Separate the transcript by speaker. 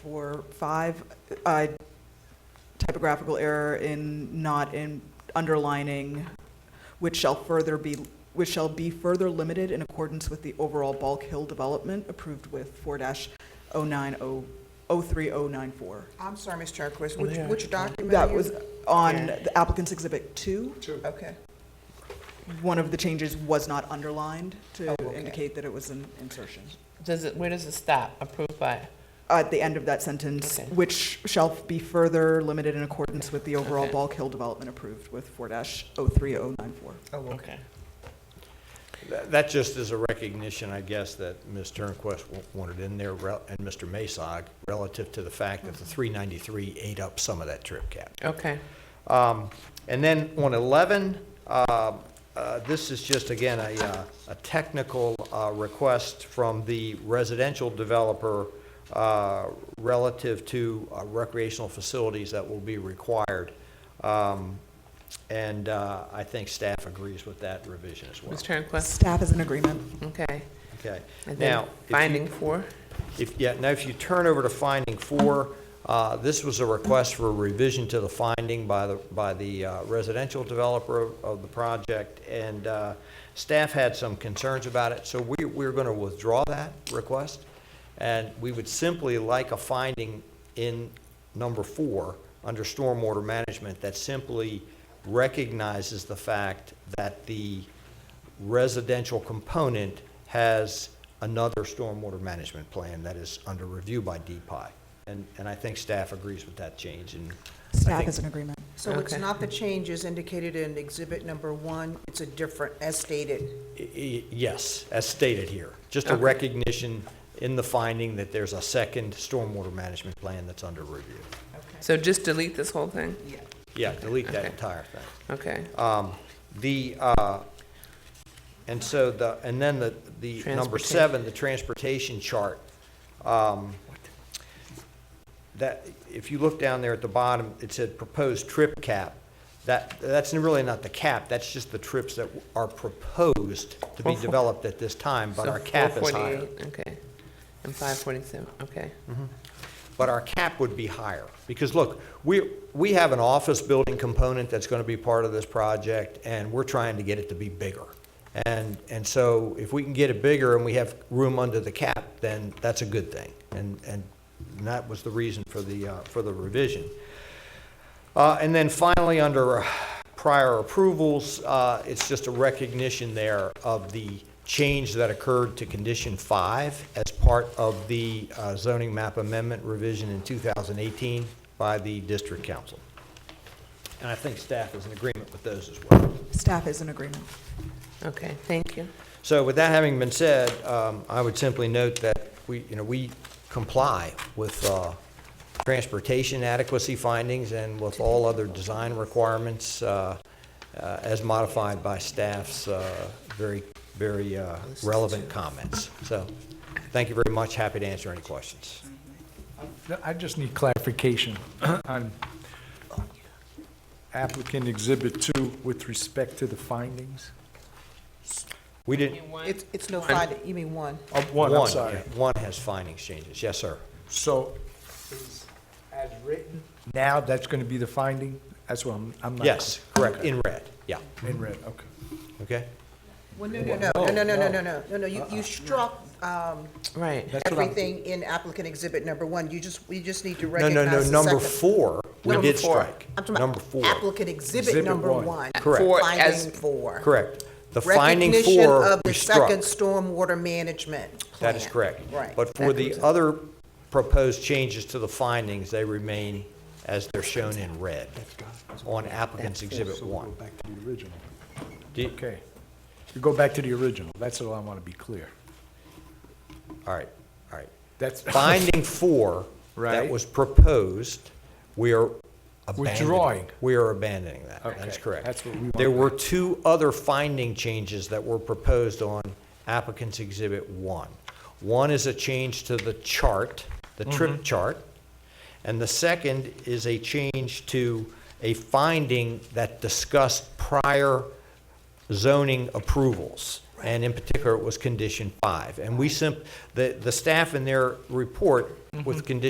Speaker 1: for five, uh, typographical error in not in underlining, which shall further be, which shall be further limited in accordance with the overall Bulk Hill development approved with four dash oh nine oh, oh three oh nine four.
Speaker 2: I'm sorry, Ms. Jarquez,
Speaker 3: Well,
Speaker 2: which,
Speaker 3: there.
Speaker 2: which document? are
Speaker 1: That
Speaker 2: you-
Speaker 1: was on
Speaker 3: Yeah.
Speaker 1: the applicant's exhibit two.
Speaker 2: Okay,
Speaker 1: One of the changes was not underlined to
Speaker 2: Oh, okay.
Speaker 1: indicate that it was an insertion.
Speaker 3: Does it, where does it stop? Approved by?
Speaker 1: At the end of that sentence,
Speaker 3: Okay.
Speaker 1: which shall be further limited in accordance with the overall
Speaker 3: Okay.
Speaker 1: Bulk Hill development approved with four dash oh three oh nine four.
Speaker 2: oh, okay.
Speaker 3: Okay.
Speaker 4: That that just is a recognition, I guess, that Ms. Turnquist wa- wanted in there, rel- and Mr. Masag, relative to the fact that the 393 ate up some of that trip cap.
Speaker 3: Okay.
Speaker 4: Um, And then on 11, uh, uh, this is just, again, a, uh, a technical uh, request from the residential developer uh, relative to uh, recreational facilities that will be required. Um, And uh, I think staff agrees with that revision as well.
Speaker 3: Ms. Turnquist?
Speaker 1: Staff is in agreement.
Speaker 3: Okay.
Speaker 4: Okay.
Speaker 3: And then
Speaker 4: Now, if you-
Speaker 3: finding four?
Speaker 4: if, yeah, now if you turn over to finding four, uh, this was a request for a revision to the finding by the, by the uh, residential developer of- of the project, and uh, staff had some concerns about it, so we, we're going to withdraw that request, and we would simply like a finding in number four, under stormwater management, that simply recognizes the fact that the residential component has another stormwater management plan that is under review by DPI. And, and I think staff agrees with that change, and I
Speaker 1: Staff
Speaker 4: think-
Speaker 1: is in agreement.
Speaker 2: So it's
Speaker 3: Okay.
Speaker 2: not the changes indicated in exhibit number one, it's a different, as stated.
Speaker 4: i- i- yes, as stated here. Just a
Speaker 3: Okay.
Speaker 4: recognition in the finding that there's a second stormwater management plan that's under review.
Speaker 2: Okay.
Speaker 3: So just delete this whole thing?
Speaker 2: Yeah.
Speaker 4: Yeah, delete that
Speaker 3: Okay.
Speaker 4: entire thing.
Speaker 3: Okay.
Speaker 4: Um, The, uh, and so the, and then the, the number seven, the transportation chart. um, That, if you look down there at the bottom, it said proposed trip cap. That, that's really not the cap, that's just the trips that are proposed to be
Speaker 3: Four-
Speaker 4: developed at this time, but
Speaker 3: So
Speaker 4: our cap is higher.
Speaker 3: 448, Okay. And 547, okay.
Speaker 4: but our cap would be higher. Because look, we, we have an office building component that's going to be part of this project, and we're trying to get it to be bigger. And, and so if we can get it bigger and we have room under the cap, then that's a good thing. And, and that was the reason for the, uh, for the revision. Uh, And then finally, under uh, prior approvals, uh, it's just a recognition there of the change that occurred to Condition 5 as part of the uh, zoning map amendment revision in 2018 by the district council. And I think staff is in agreement with those as well.
Speaker 1: Staff is in agreement.
Speaker 4: Mm-hmm.
Speaker 3: Okay, thank you.
Speaker 4: So with that having been said, um, I would simply note that we, you know, we comply with uh, transportation adequacy findings and with all other design requirements uh, uh, as modified by staff's uh, very, very uh, relevant comments. So, thank you very much, happy to answer any questions.
Speaker 5: No, I just need clarification on applicant Exhibit 2 with respect to the findings.
Speaker 4: We didn't,
Speaker 2: It's, it's no finding, you mean one?
Speaker 5: Oh, one, I'm
Speaker 4: one,
Speaker 5: sorry.
Speaker 4: yeah, one has findings changes, yes, sir.
Speaker 5: So is as written, now that's going to be the finding? That's what I'm, I'm not.
Speaker 4: Yes, correct,
Speaker 5: Okay.
Speaker 4: in red, yeah,
Speaker 5: In red, okay.
Speaker 4: okay?
Speaker 2: Well, no, no, no, no, no, no, no, no, no, no, no, you,
Speaker 4: Uh-uh.
Speaker 2: you struck, um,
Speaker 3: Right.
Speaker 5: That's what I'm-
Speaker 2: everything in applicant exhibit number one, you just, you just need to
Speaker 4: No,
Speaker 2: recognize
Speaker 4: no, no,
Speaker 2: the
Speaker 4: number
Speaker 2: second-
Speaker 4: four, we
Speaker 2: Number
Speaker 4: did
Speaker 2: four.
Speaker 4: strike.
Speaker 2: I'm talking about
Speaker 4: Number four.
Speaker 2: Applicant exhibit
Speaker 5: Exhibit
Speaker 2: number
Speaker 5: one.
Speaker 2: one.
Speaker 4: Correct.
Speaker 3: Four as-
Speaker 2: Finding four.
Speaker 4: Correct. The finding
Speaker 2: Recognition
Speaker 4: four,
Speaker 2: of
Speaker 4: we
Speaker 2: the second
Speaker 4: struck.
Speaker 2: stormwater management plan.
Speaker 4: That is correct.
Speaker 2: Right.
Speaker 4: But for the other proposed changes to the findings, they remain as they're shown in red on applicant's exhibit
Speaker 5: So we'll
Speaker 4: one.
Speaker 5: go back to the original.
Speaker 4: Do you-
Speaker 5: Okay. You go back to the original. That's all I want to be clear.
Speaker 4: All right, all right.
Speaker 5: That's.
Speaker 4: Finding four that
Speaker 5: Right.
Speaker 4: was proposed, we are abandoning.
Speaker 5: Withdrawing.
Speaker 4: We are abandoning that. That is
Speaker 5: Okay,
Speaker 4: correct.
Speaker 5: that's what we want.
Speaker 4: There were two other finding changes that were proposed on applicant's exhibit one. One is a change to the chart, the
Speaker 5: Mm-hmm.
Speaker 4: trip chart, and the second is a change to a finding that discussed prior zoning approvals, and in
Speaker 5: Mm-hmm.
Speaker 4: particular, it was condition five. And we simp, the, the staff in their report with condition